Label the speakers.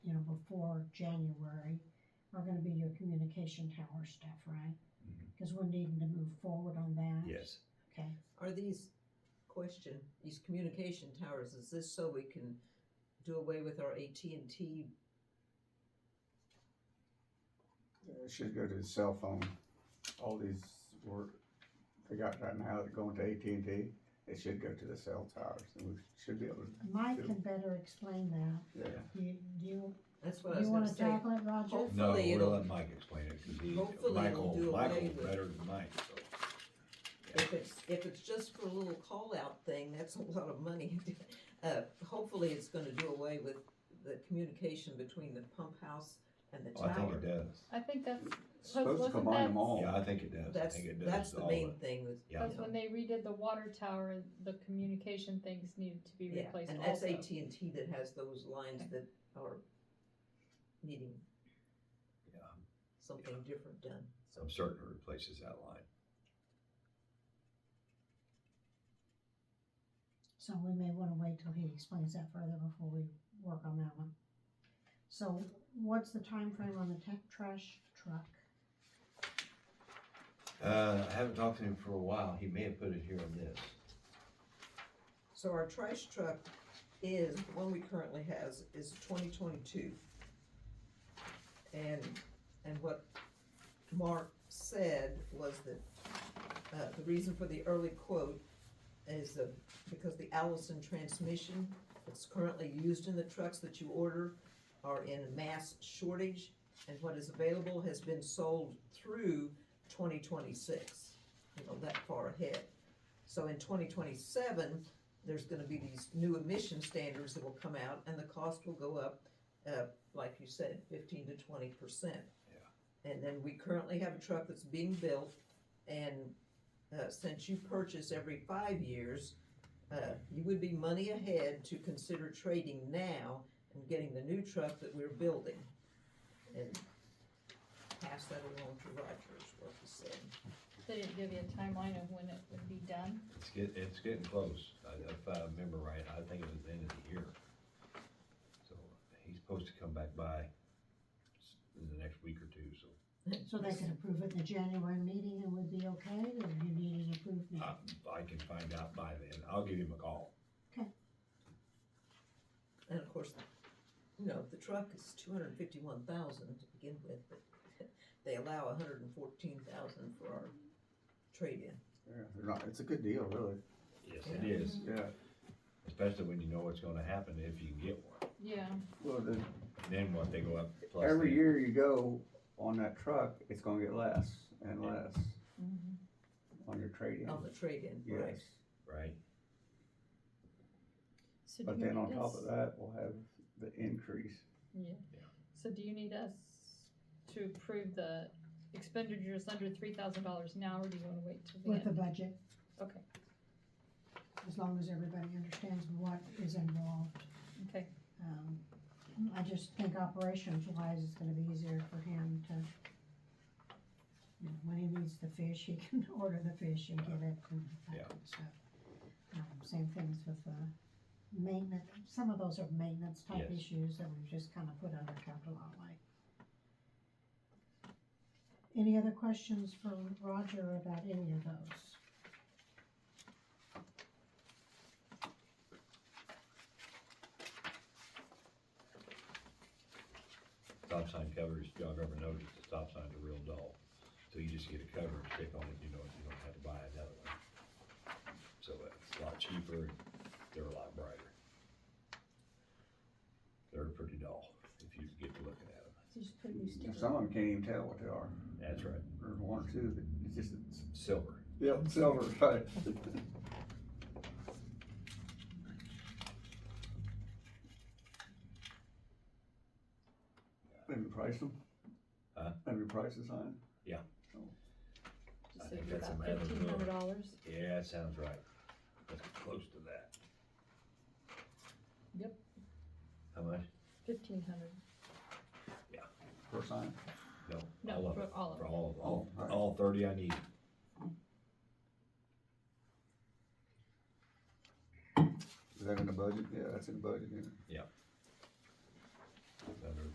Speaker 1: for January are gonna be your communication tower stuff, right?
Speaker 2: Mhm.
Speaker 1: Because we're needing to move forward on that.
Speaker 2: Yes,
Speaker 1: Okay,
Speaker 3: Are these, question, these communication towers, is this so we can do away with our AT&T?
Speaker 4: It should go to the cell phone. All these were, they got right now, that going to AT&T, it should go to the cell towers, and we should be able to,
Speaker 1: Mike can better explain that.
Speaker 4: yeah.
Speaker 1: Do you, do you,
Speaker 3: That's what I
Speaker 1: do
Speaker 3: was
Speaker 1: you
Speaker 3: gonna
Speaker 1: wanna
Speaker 3: say.
Speaker 1: tackle it, Roger?
Speaker 2: no,
Speaker 3: Hopefully
Speaker 2: we'll
Speaker 3: it'll,
Speaker 2: let Mike explain it, cause he,
Speaker 3: Hopefully it'll
Speaker 2: Michael,
Speaker 3: do away
Speaker 2: Michael's
Speaker 3: with-
Speaker 2: better than Mike, so.
Speaker 3: if it's, if it's just for a little call-out thing, that's a lot of money. Uh, hopefully it's gonna do away with the communication between the pump house and the
Speaker 2: Oh, I think
Speaker 3: tower.
Speaker 2: it does,
Speaker 5: I think that's,
Speaker 4: It's Supposed to
Speaker 5: Wasn't
Speaker 4: combine them
Speaker 5: that-
Speaker 4: all.
Speaker 2: yeah, I think it does, I
Speaker 3: That's,
Speaker 2: think it
Speaker 3: that's
Speaker 2: does
Speaker 3: the
Speaker 2: all
Speaker 3: main
Speaker 2: the-
Speaker 3: thing with,
Speaker 2: Yeah.
Speaker 5: that's when they redid the water tower, the communication things needed to be
Speaker 3: yeah,
Speaker 5: replaced
Speaker 3: and that's
Speaker 5: also.
Speaker 3: AT&T that has those lines that are needing
Speaker 2: Yeah.
Speaker 3: something different done, so.
Speaker 2: I'm certain it replaces that line.
Speaker 1: So we may wanna wait till he explains that further before we work on that one. So what's the time frame on the tech trash truck?
Speaker 2: Uh, I haven't talked to him for a while, he may have put it here on this,
Speaker 3: So our trash truck is, the one we currently has, is twenty twenty-two. And, and what Mark said was that, uh, the reason for the early quote is the, because the Allison transmission that's currently used in the trucks that you order are in mass shortage, and what is available has been sold through twenty twenty-six, you know, that far ahead. So in twenty twenty-seven, there's gonna be these new emission standards that will come out, and the cost will go up, uh, like you said, fifteen to twenty percent. Yeah. And then we currently have a truck that's being built, and, uh, since you purchase every five years, uh, you would be money ahead to consider trading now and getting the new truck that we're building. And pass that along to Roger, is what he said.
Speaker 5: They didn't give you a timeline of when it would be done.
Speaker 2: it's get, it's getting close, I- if I remember right, I think it was the end of the year. So, he's supposed to come back by s- in the next week or two, so.
Speaker 1: So they could approve it in the January meeting and we'd be okay, or do you need it approved now?
Speaker 2: I, I can find out by then, I'll give him a call.
Speaker 3: And of course, you know, the truck is two hundred and fifty-one thousand to begin with, but they allow a hundred and fourteen thousand for our trade-in.
Speaker 4: Yeah, they're not, it's a good deal, really,
Speaker 2: Yes, it is,
Speaker 4: yeah.
Speaker 2: especially when you know what's gonna happen if you can get one,
Speaker 5: Yeah,
Speaker 4: Well, the,
Speaker 2: and then what, they go up plus.
Speaker 4: every
Speaker 2: the-
Speaker 4: year you go on that truck, it's gonna get less and less
Speaker 5: Mm-hmm.
Speaker 4: on your trade-in.
Speaker 3: On the trade-in, right?
Speaker 4: Yes,
Speaker 2: Right,
Speaker 5: so do
Speaker 4: but
Speaker 5: you
Speaker 4: then on
Speaker 5: need
Speaker 4: top
Speaker 5: us-
Speaker 4: of that, we'll have the increase.
Speaker 5: Yeah,
Speaker 2: Yeah.
Speaker 5: so do you need us to approve the expenditures under three thousand dollars now, or do you wanna wait till the
Speaker 1: With the
Speaker 5: end?
Speaker 1: budget,
Speaker 5: Okay,
Speaker 1: as long as everybody understands what is involved.
Speaker 5: okay,
Speaker 1: Um, I just think operations wise, it's gonna be easier for him to, you know, when he needs the fish, he can order the fish and get it and
Speaker 2: Yeah.
Speaker 1: that kind of stuff. Um, same things with, uh, maintenance, some of those are maintenance type
Speaker 2: Yes.
Speaker 1: issues that we've just kind of put under capital outlay. Any other questions for Roger about any of those?
Speaker 2: stop sign covers, if y'all have ever noticed, the stop signs are real dull, so you just get a cover and stick on it, you know, you don't have to buy another one. So it's a lot cheaper, and they're a lot brighter. They're pretty dull, if you get to looking at them,
Speaker 5: so you just put a new sticker.
Speaker 4: Some of them can't even tell what they are,
Speaker 2: that's right,
Speaker 4: or one or two, but it's just, it's,
Speaker 2: silver.
Speaker 4: yep, silver, right. Have you priced them?
Speaker 2: Huh?
Speaker 4: Have you priced the sign?
Speaker 5: Just
Speaker 2: I
Speaker 5: so
Speaker 2: think
Speaker 5: you're
Speaker 2: that's
Speaker 5: about
Speaker 2: a matter of
Speaker 5: fifteen hundred dollars,
Speaker 2: Yeah, that sounds right. That's close to that.
Speaker 5: Yep.
Speaker 2: How much?
Speaker 5: fifteen hundred,
Speaker 4: Per sign?
Speaker 2: No, all
Speaker 5: no,
Speaker 2: of
Speaker 5: for
Speaker 2: it,
Speaker 5: all of
Speaker 2: for
Speaker 5: them.
Speaker 2: all, all,
Speaker 4: Oh, all right.
Speaker 2: all thirty I need.
Speaker 4: Is that in the budget? Yeah, that's in the budget, yeah.
Speaker 2: Yep.